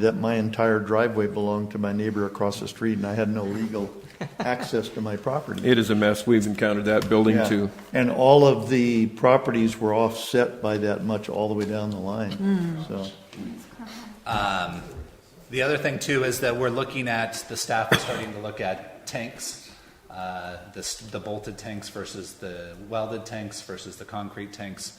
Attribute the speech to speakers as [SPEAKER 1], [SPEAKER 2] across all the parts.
[SPEAKER 1] that my entire driveway belonged to my neighbor across the street, and I had no legal access to my property.
[SPEAKER 2] It is a mess. We've encountered that building
[SPEAKER 1] Yeah.
[SPEAKER 2] too.
[SPEAKER 1] And all of the properties were offset by that much all the way down the
[SPEAKER 3] Hmm.
[SPEAKER 1] line, so.
[SPEAKER 3] The other thing too is that we're looking at, the staff is starting to look at tanks, uh, the s- the bolted tanks versus the welded tanks versus the concrete tanks.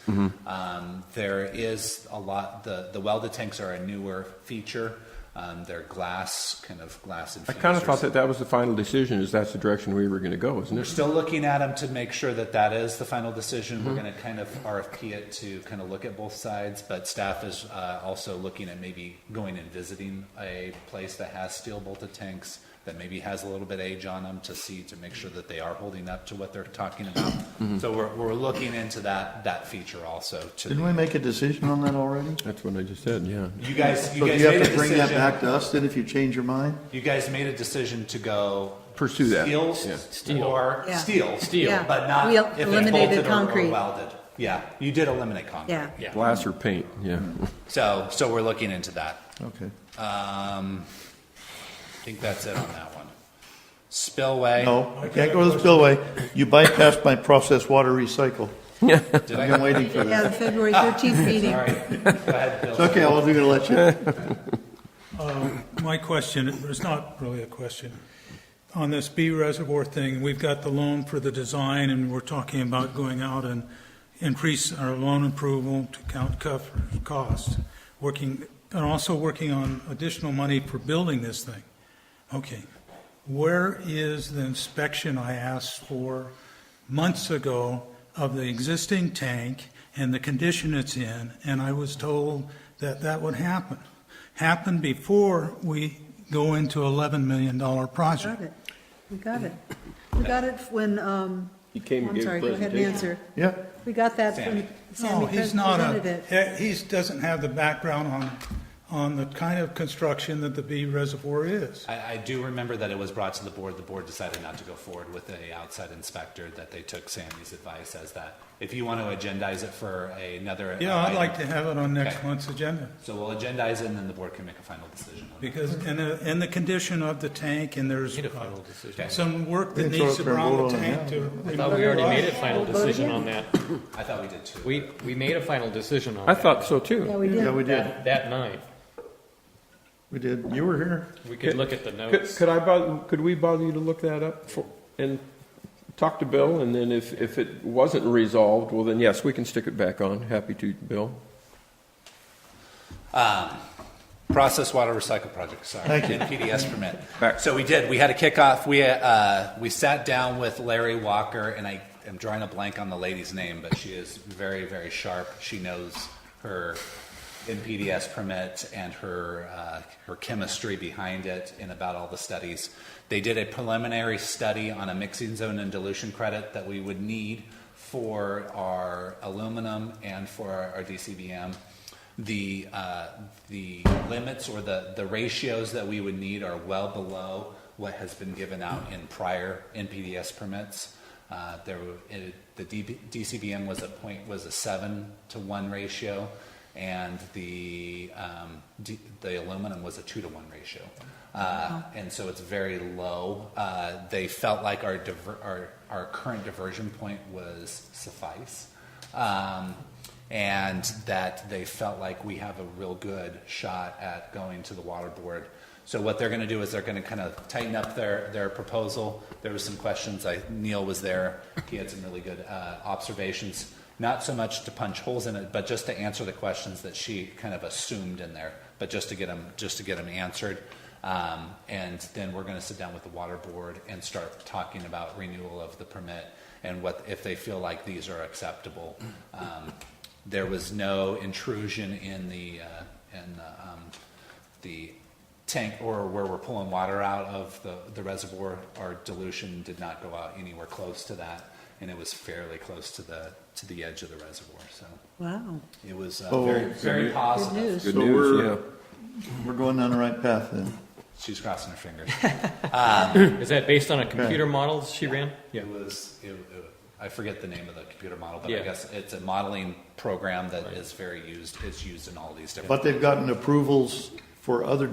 [SPEAKER 3] Um, There is a lot, the the welded tanks are a newer feature. Um, They're glass, kind of glass infused.
[SPEAKER 2] I kind of
[SPEAKER 3] or
[SPEAKER 2] thought that that was the final decision, is that's the direction we were going to go, isn't
[SPEAKER 3] we're
[SPEAKER 2] it?
[SPEAKER 3] still looking at them to make sure that that is the final decision. We're going to kind of RFP it to kind of look at both sides, but staff is uh, also looking at maybe going and visiting a place that has steel bolted tanks that maybe has a little bit of age on them to see to make sure that they are holding up to what they're talking about. So we're, we're looking into that that feature also. To
[SPEAKER 1] Didn't
[SPEAKER 3] the-
[SPEAKER 1] we make a decision on that already?
[SPEAKER 2] That's what I just said, yeah.
[SPEAKER 3] you guys, you
[SPEAKER 1] So do
[SPEAKER 3] guys
[SPEAKER 1] you
[SPEAKER 3] made
[SPEAKER 1] have
[SPEAKER 3] a
[SPEAKER 1] to bring that
[SPEAKER 3] decision.
[SPEAKER 1] back to us then if you change your mind?
[SPEAKER 3] You guys made a decision to go
[SPEAKER 2] Pursue that,
[SPEAKER 3] steel,
[SPEAKER 2] yeah.
[SPEAKER 3] steel, or
[SPEAKER 4] Yeah.
[SPEAKER 3] steel,
[SPEAKER 4] Steel. Yeah.
[SPEAKER 3] but not
[SPEAKER 4] We
[SPEAKER 3] if
[SPEAKER 4] eliminated
[SPEAKER 3] it's bolted or-
[SPEAKER 4] concrete.
[SPEAKER 3] or welded. Yeah, you did eliminate concrete.
[SPEAKER 4] Yeah.
[SPEAKER 2] Glass or paint, yeah.
[SPEAKER 3] So, so we're looking into that.
[SPEAKER 1] Okay.
[SPEAKER 3] Um, I think that's it on that one. Spillway.
[SPEAKER 1] No, I can't go to the spillway. You bypassed my processed water recycle.
[SPEAKER 3] Did
[SPEAKER 1] I've
[SPEAKER 3] I?
[SPEAKER 1] been waiting for
[SPEAKER 4] Yeah,
[SPEAKER 1] that.
[SPEAKER 4] the February 13th meeting.
[SPEAKER 3] All right. Go ahead, Bill.
[SPEAKER 1] It's okay, I wasn't gonna let you.
[SPEAKER 5] My question, it's not really a question. On this B reservoir thing, we've got the loan for the design, and we're talking about going out and increase our loan approval to count cuff costs, working, and also working on additional money for building this thing. Okay. Where is the inspection I asked for months ago of the existing tank and the condition it's in? And I was told that that would happen. Happen before we go into $11 million
[SPEAKER 4] Got
[SPEAKER 5] project.
[SPEAKER 4] it. We got it. We got it when, um,
[SPEAKER 2] He came and
[SPEAKER 4] I'm
[SPEAKER 2] gave a
[SPEAKER 4] sorry, go ahead and
[SPEAKER 2] presentation.
[SPEAKER 4] answer.
[SPEAKER 1] Yeah,
[SPEAKER 4] We got that
[SPEAKER 3] Sammy.
[SPEAKER 4] when Sammy
[SPEAKER 5] No, Oh, he's not
[SPEAKER 4] presented
[SPEAKER 5] a,
[SPEAKER 4] it.
[SPEAKER 5] he he doesn't have the background on, on the kind of construction that the B reservoir is.
[SPEAKER 3] I, I do remember that it was brought to the board. The board decided not to go forward with a outside inspector, that they took Sammy's advice as that. If you want to agendize it for another.
[SPEAKER 5] Yeah, I'd
[SPEAKER 3] item,
[SPEAKER 5] like to have it on next
[SPEAKER 3] Okay.
[SPEAKER 5] month's agenda.
[SPEAKER 3] So we'll agendize it and then the board can make a final decision on it.
[SPEAKER 5] Because, and, uh, and the condition of the tank, and there's
[SPEAKER 3] decision.
[SPEAKER 5] some work that
[SPEAKER 1] Didn't show
[SPEAKER 5] needs to
[SPEAKER 1] up
[SPEAKER 5] be
[SPEAKER 1] for a
[SPEAKER 5] on
[SPEAKER 1] vote
[SPEAKER 5] the
[SPEAKER 1] on
[SPEAKER 5] tank
[SPEAKER 1] that.
[SPEAKER 5] to.
[SPEAKER 6] I thought we already made a final
[SPEAKER 4] Vote
[SPEAKER 6] decision
[SPEAKER 4] again?
[SPEAKER 6] on that.
[SPEAKER 3] I thought we did too.
[SPEAKER 6] We, we made a final decision on
[SPEAKER 2] I
[SPEAKER 6] that.
[SPEAKER 2] thought so
[SPEAKER 4] Yeah,
[SPEAKER 2] too.
[SPEAKER 4] we
[SPEAKER 1] yeah,
[SPEAKER 4] did.
[SPEAKER 1] we did,
[SPEAKER 6] That, that night.
[SPEAKER 1] we did. You were here.
[SPEAKER 6] We could look at the
[SPEAKER 2] Could
[SPEAKER 6] notes.
[SPEAKER 2] could I, bother- could we bother you to look that up for- and talk to Bill? And then if, if it wasn't resolved, well then yes, we can stick it back on. Happy to, Bill.
[SPEAKER 3] Process water recycle project, sorry. Thank you. NPDS permit.
[SPEAKER 2] Back.
[SPEAKER 3] So we did, we had a kickoff, we, uh, we sat down with Larry Walker, and I am drawing a blank on the lady's name, but she is very, very sharp. She knows her NPDS permit and her, uh, her chemistry behind it and about all the studies. They did a preliminary study on a mixing zone and dilution credit that we would need for our aluminum and for our our DCBM the uh, the limits or the the ratios that we would need are well below what has been given out in prior NPDS permits. Uh, there, were- it, the DB, DCBM was a point was a seven to one ratio, and the um, D, the aluminum was a two to one ratio, uh, and so it's very low. Uh, they felt like our diver, our our current diversion point was suffice. Um, and that they felt like we have a real good shot at going to the water board. So what they're going to do is they're going to kind of tighten up their, their proposal. There was some questions. I, Neil was there. He had some really good uh, observations, not so much to punch holes in it, but just to answer the questions that she kind of assumed in there, but just to get them just to get them answered. Um, and then we're going to sit down with the water board and start talking about renewal of the permit and what if they feel like these are acceptable. Um, there was no intrusion in the uh, in the, um, the tank or where we're pulling water out of the, the reservoir. Our dilution did not go out anywhere close to that, and it was fairly close to the to the edge of the reservoir. So
[SPEAKER 4] Wow.
[SPEAKER 3] it was uh,
[SPEAKER 1] Oh,
[SPEAKER 3] very very
[SPEAKER 4] Good
[SPEAKER 3] positive.
[SPEAKER 4] news.
[SPEAKER 2] Good
[SPEAKER 1] So
[SPEAKER 2] news,
[SPEAKER 1] we're-
[SPEAKER 2] yeah.
[SPEAKER 1] We're going down the right path then.
[SPEAKER 3] She's crossing her fingers.
[SPEAKER 6] Is that based on a computer model she ran?
[SPEAKER 3] It was, it, it- I forget the name of the computer model, but I
[SPEAKER 6] Yeah.
[SPEAKER 3] guess it's a modeling program that is very used, it's used in all these different.
[SPEAKER 1] But they've gotten approvals for other